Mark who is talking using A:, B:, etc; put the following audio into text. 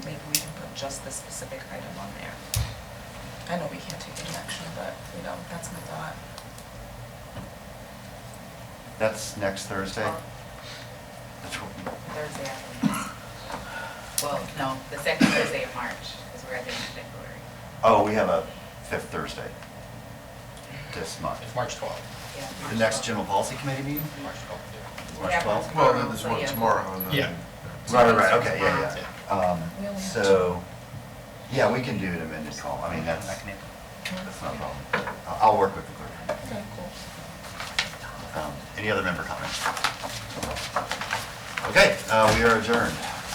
A: just this specific item on there. I know we can't take any action, but, you know, that's my thought.
B: That's next Thursday?
A: Well,
B: That's what-
C: Thursday afternoon. Well, no, the second Thursday of March, because we're at the end of February.
B: Oh, we have a fifth Thursday this month.
D: It's March 12th.
C: Yeah,
B: The
C: March
B: next
C: 12th.
B: general policy committee meeting?
D: March 12th,
B: March
C: Yeah,
B: 12th?
E: Well, then there's
C: So,
E: one
C: yeah.
E: tomorrow. and then-
D: Yeah.
B: Right, right, right, okay, yeah, yeah.
A: We only
B: Um,
A: have
B: So, yeah, we can do an amended call, I mean, that's, that's not a problem. I- I'll work with the clerk.
A: Okay, cool.
B: Um, Any other member comments? Okay, uh, we are adjourned.